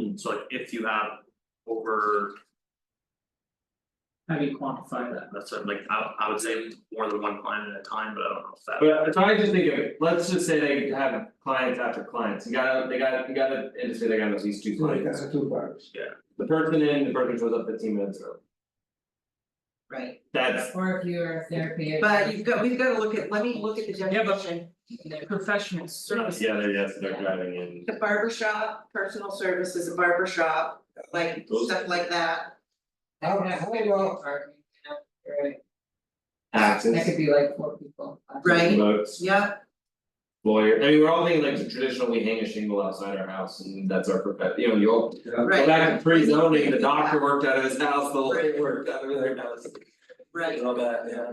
So like if you have over, How do you quantify that? that's what, like I I would say more than one client at a time, but I don't know if that. But I'm trying to think of, it. let's just say they have clients after clients, you gotta, they gotta, you gotta, and just say they got at least two Like, clients. that's a two bucks. The person in, the person shows up fifteen minutes early, Right, that's, or if you're a therapy. But you've got, we've gotta look at, let me look at the Yeah, but- definition, Professional service. yeah, they're, yes, they're driving in, the barber shop, personal services, a barber shop, like Those- stuff like that. That could have How- Oh, how therapy about- partner, you know, right. That could taxes, be like four people. five Right. people. votes, Yeah, lawyer, I mean, we're all thinking like traditional, we hang a shingle outside our house and that's our perfect, you know, you all. Yeah. Right. Go back to pre-zoning, the doctor worked out of his house, the lawyer worked out of their house, right, and all that, yeah.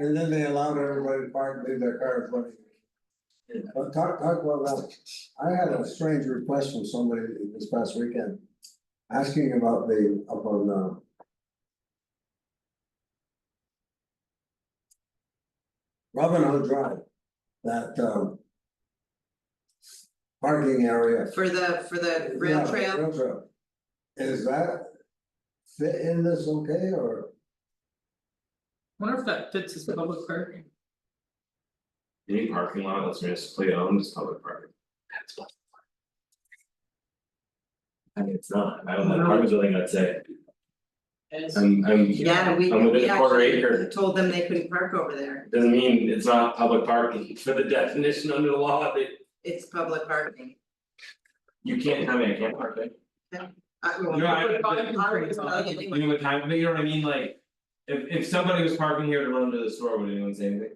And then they allowed everybody to park, leave their car in front of you. Yeah. But talk, talk about that, I had a strange request from somebody this past weekend. Asking about the, up on, uh. Robin Hood Drive, that, um. Parking area for the for the rail Yeah, trail, Rail trail. Is that fit in this okay or? Wonder if that fits as public parking. Any parking lot that's municipally owned is public parking. That's what. I mean, it's not, I don't know, apartment building, I'd say, I'm I'm, yeah, we I'm we within a quarter actually acre, told them they couldn't park over there, doesn't mean it's not public parking, for the definition under the law, that it's public parking. you can't, I mean, I can't park there. I Uh, well, No, I- Public parking I would is tell not- you You know what time, but you know what I mean, like, if if somebody was parking here to run to the store, would anyone say anything?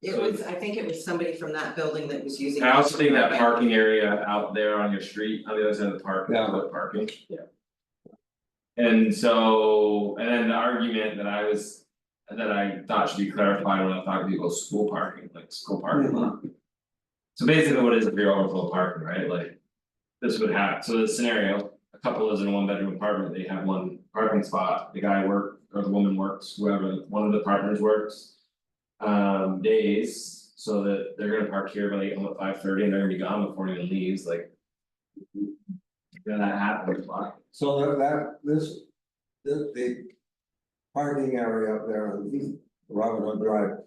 It was, I think it was somebody from that building that was using. I also think that parking area out there on your street, on the other side of the park, is Yeah. public parking. Yeah. And so, and then the argument that I was, that I thought should be clarified when I thought people school parking, like school parking lot. So basically, what is if you're overflow parking, right, like. This would happen, so the scenario, a couple lives in a one bedroom apartment, they have one parking spot, the guy work, or the woman works, whoever, one of the partners works um days, so that they're gonna park here by like almost five thirty and they're gonna be gone before anyone leaves, like. Then that happens, why? So that that this, the the. Parking area up there on East Robin Hood Drive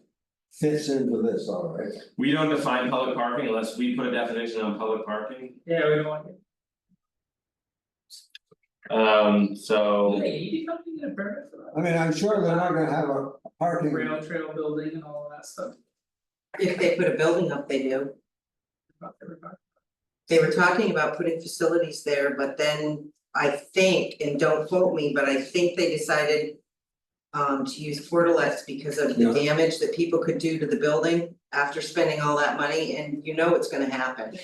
fits into this, all right? We don't define public parking unless we put a definition on public parking, Yeah, we don't want it. um so. Hey, you don't need a permit for I mean, I'm sure they're not gonna have a a that. parking. Rail trail building and all that stuff. If they put a building up, they do. about everybody. They were talking about putting facilities there, but then I think, and don't quote me, but I think they decided. Um, to use Portalex because of the damage that people could do to the building after spending all that money and you know what's gonna happen.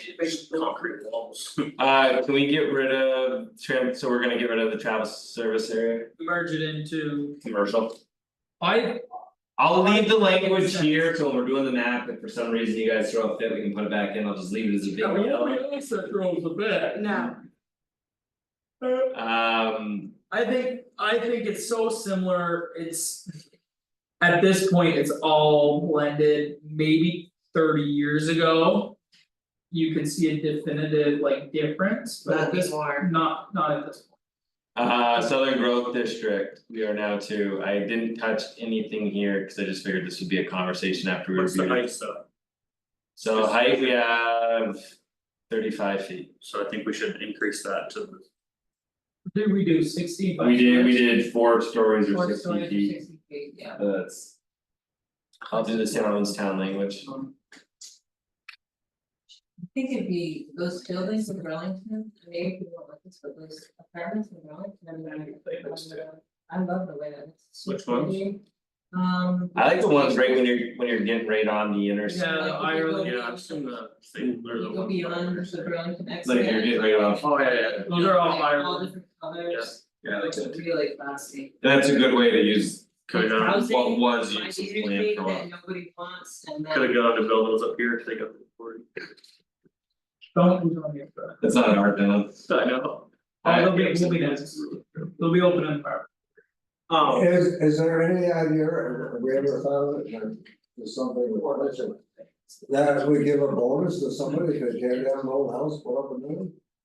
Concrete walls. Uh can we get rid of tram, so we're gonna get rid of the travel service area, Merge it into, commercial? I, I'll leave the language here till we're doing the map, if for some reason you guys throw a fit, we can put it back in, I'll just leave it as a big yeah, we yellow. always said throws the bit. No. Um I think, I think it's so similar, it's. At this point, it's all blended, maybe thirty years ago. You could see a definitive like difference, but at Not this, anymore. not, not at this point. Uh, Southern Grove District, we are now to, I didn't touch anything here, cause I just figured this would be a conversation after we What's the reviewed it. height though? So height, we have thirty-five feet. So I think we should increase that to the Did we do sixty by? We did, we did four stories Four or stories sixty or feet, 60 feet, yeah. Uh, that's. I'll do this in our own town language, I think it'd be those buildings in Burlington, maybe people don't like this, but those apartments in Burlington, I'm gonna- I love the way that it's. Which ones? Um. I like the ones right when you're, when you're getting right on the intersect, Yeah, Like, if you Ireland, go Yeah, I've seen the thing or the You go one. beyond the Burlington exit. like you're getting right on. Oh, yeah, yeah, yeah. Those are all like, Ireland, different colors, it's really classy. That's a good way to use Could have gone, Housing, what was like, used the as land interstate for a while. that nobody wants and then. could have gone to buildings up here, take up the forty. don't move on here, but That's not an art demo. I know. Oh, it'll be- we'll be nice. they'll be open in power. Um, Is is there any idea, or have we ever thought of it, or is something that we give a bonus to somebody if they tear down an old house, put up a new? one?